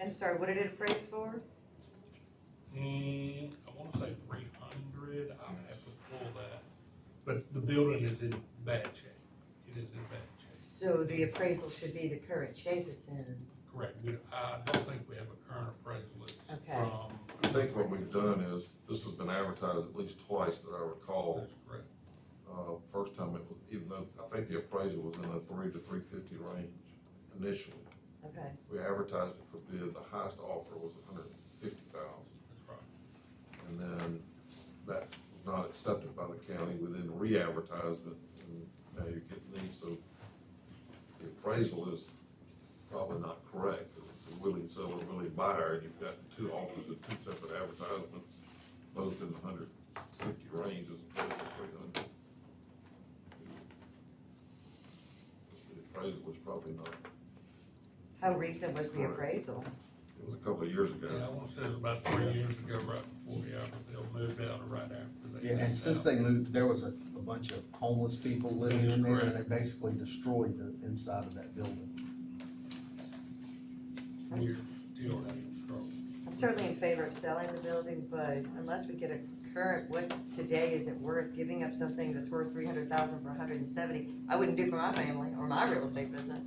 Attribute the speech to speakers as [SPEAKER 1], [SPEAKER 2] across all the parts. [SPEAKER 1] I'm sorry, what did it appraise for?
[SPEAKER 2] Hmm, I wanna say three hundred, I'll have to pull that, but the building is in bad shape, it is in bad shape.
[SPEAKER 1] So the appraisal should be the current shape it's in.
[SPEAKER 2] Correct, we, I don't think we have a current appraisal, it's
[SPEAKER 1] Okay.
[SPEAKER 2] from,
[SPEAKER 3] I think what we've done is, this has been advertised at least twice that I recall.
[SPEAKER 2] that's correct.
[SPEAKER 3] Uh, first time it was, even though, I think the appraisal was in the three to three fifty range initially.
[SPEAKER 1] Okay,
[SPEAKER 3] We advertised it for bid, the highest offer was a hundred and fifty thousand.
[SPEAKER 2] That's right.
[SPEAKER 3] And then that was not accepted by the county, we then re-advertised it, and now you're getting these, so the appraisal is probably not correct. It's a willing seller, willing buyer, and you've got two offers and two separate advertisements, both in the hundred fifty range as opposed to three hundred. The appraisal was probably not,
[SPEAKER 1] how recent was the appraisal?
[SPEAKER 3] it was a couple of years ago.
[SPEAKER 2] Yeah, I wanna say it was about three years ago, right before the Albertville moved out, or right after they.
[SPEAKER 4] Yeah, and
[SPEAKER 2] moved
[SPEAKER 4] since
[SPEAKER 2] out.
[SPEAKER 4] they moved, there was a, a bunch of homeless people living in there, and they basically destroyed the inside of that building.
[SPEAKER 1] I'm
[SPEAKER 2] We're
[SPEAKER 1] s-
[SPEAKER 2] still having trouble.
[SPEAKER 1] I'm certainly in favor of selling the building, but unless we get a current, what's today, is it worth giving up something that's worth three hundred thousand for a hundred and seventy? I wouldn't do for my family or my real estate business.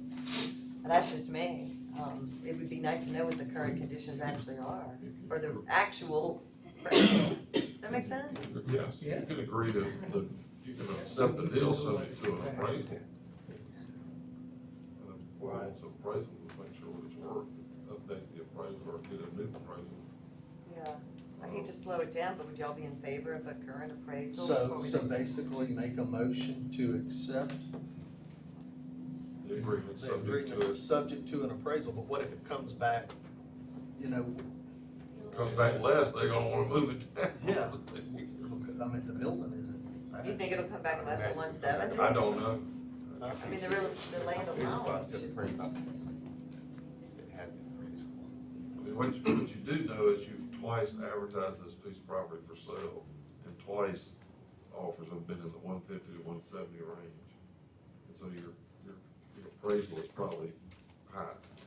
[SPEAKER 1] That's just me. Um, it would be nice to know what the current conditions actually are, or the actual. Does that make sense?
[SPEAKER 3] Yes, you can agree to, the you can accept the deal subject to an appraisal. And if we want some appraisal, we make sure what it's worth, update the appraisal or get a new appraisal.
[SPEAKER 1] Yeah, I hate to slow it down, but would y'all be in favor of a current appraisal? before
[SPEAKER 4] So,
[SPEAKER 1] we
[SPEAKER 4] so
[SPEAKER 1] do-
[SPEAKER 4] basically make a motion to accept
[SPEAKER 3] The agreement
[SPEAKER 4] the
[SPEAKER 3] subject to
[SPEAKER 4] agreement,
[SPEAKER 3] it,
[SPEAKER 4] subject to an appraisal, but what if it comes back, you know,
[SPEAKER 3] comes back less, they gonna wanna move it down.
[SPEAKER 4] Yeah. I mean, the building isn't bad.
[SPEAKER 1] You think it'll come back less than one seventy?
[SPEAKER 3] I don't know,
[SPEAKER 1] I mean, the real, the land alone should.
[SPEAKER 3] I mean, what you, what you do know is you've twice advertised this piece of property for sale, and twice offers have been in the one fifty to one seventy range. And so your, your, your appraisal is probably high.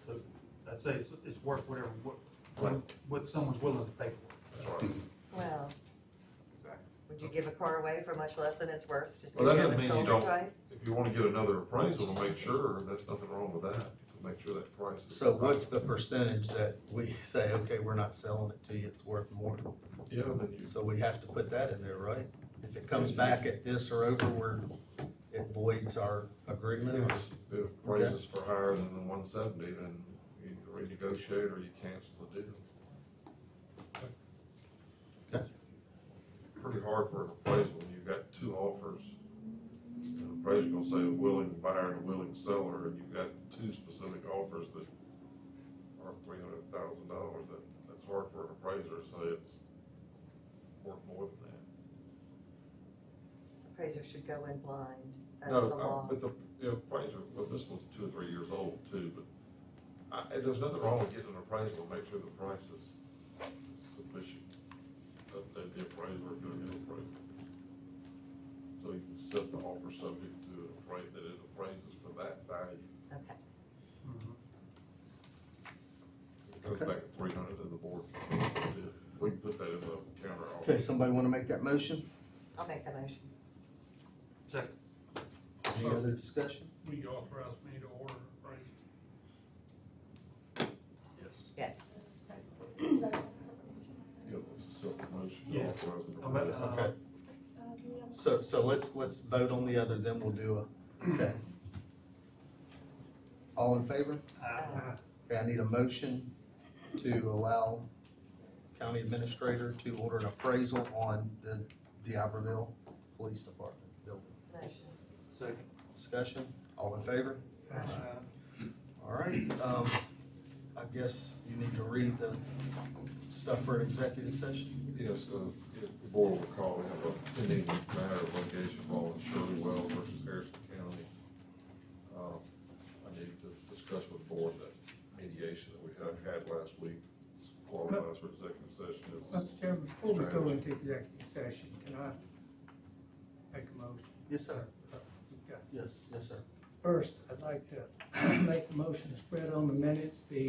[SPEAKER 5] I'd say it's, it's worth whatever, what, what- what someone's willing to pay for.
[SPEAKER 3] That's right.
[SPEAKER 1] Well,
[SPEAKER 5] Exactly.
[SPEAKER 1] would you give a car away for much less than it's worth, just
[SPEAKER 3] Well,
[SPEAKER 1] because
[SPEAKER 3] that
[SPEAKER 1] you
[SPEAKER 3] doesn't
[SPEAKER 1] haven't sold
[SPEAKER 3] mean you
[SPEAKER 1] it
[SPEAKER 3] don't-
[SPEAKER 1] twice?
[SPEAKER 3] If you wanna get another appraisal to make sure, there's nothing wrong with that, to make sure that price is.
[SPEAKER 4] So what's the percentage that we say, okay, we're not selling it to you, it's worth more?
[SPEAKER 3] Yeah, then you,
[SPEAKER 4] So we have to put that in there, right? If it comes back at this or over, we're, it voids our agreement, or-
[SPEAKER 3] if it appraises for higher than the one seventy, then you renegotiate or you cancel the deal.
[SPEAKER 4] Okay.
[SPEAKER 3] Pretty hard for an appraisal, when you've got two offers. An appraiser gonna say a willing buyer and a willing seller, and you've got two specific offers that are three hundred thousand dollars, that, that's hard for an appraiser to say it's worth more than that.
[SPEAKER 1] Appraiser should go in blind, that's the
[SPEAKER 3] No, I-
[SPEAKER 1] law.
[SPEAKER 3] But the, the appraiser, well, this one's two or three years old too, but I, and there's nothing wrong with getting an appraisal, to make sure the price is sufficient. Update the appraiser, do a new appraisal. So you can set the offer subject to an appraisal, that it appraises for that value.
[SPEAKER 1] Okay,
[SPEAKER 5] Mm-hmm.
[SPEAKER 3] It goes
[SPEAKER 4] Okay.
[SPEAKER 3] back at three hundred to the board. We can put that in the counter offer.
[SPEAKER 4] Okay, somebody wanna make that motion?
[SPEAKER 1] I'll make that motion.
[SPEAKER 5] Second,
[SPEAKER 4] Any other discussion?
[SPEAKER 2] Will you authorize me to order an appraisal?
[SPEAKER 5] yes.
[SPEAKER 1] Yes,
[SPEAKER 3] Yeah, it's a self-promotion.
[SPEAKER 5] Yeah.
[SPEAKER 3] Authorize the
[SPEAKER 5] I'm at, uh,
[SPEAKER 3] appraisal.
[SPEAKER 4] Okay, so, so let's, let's vote on the other, then we'll do a, okay. All in favor?
[SPEAKER 5] I-
[SPEAKER 4] Okay, I need a motion to allow county administrator to order an appraisal on the D'Iberville Police Department building.
[SPEAKER 1] motion.
[SPEAKER 5] Second.
[SPEAKER 4] Discussion, all in favor? All right, um, I guess you need to read the stuff for an executive session.
[SPEAKER 3] Yes, uh, if the board will recall, we have a pending matter of litigation involving Shirley Wells versus Harrison County. Uh, I need to discuss with the board that mediation that we had, had last week qualifies for executive session.
[SPEAKER 6] Mr. Chairman, before we go into executive session, can I make a motion? Uh,
[SPEAKER 4] Yes, sir.
[SPEAKER 6] Okay.
[SPEAKER 4] Yes, yes, sir.
[SPEAKER 6] First, I'd like to make a motion to spread on the minutes the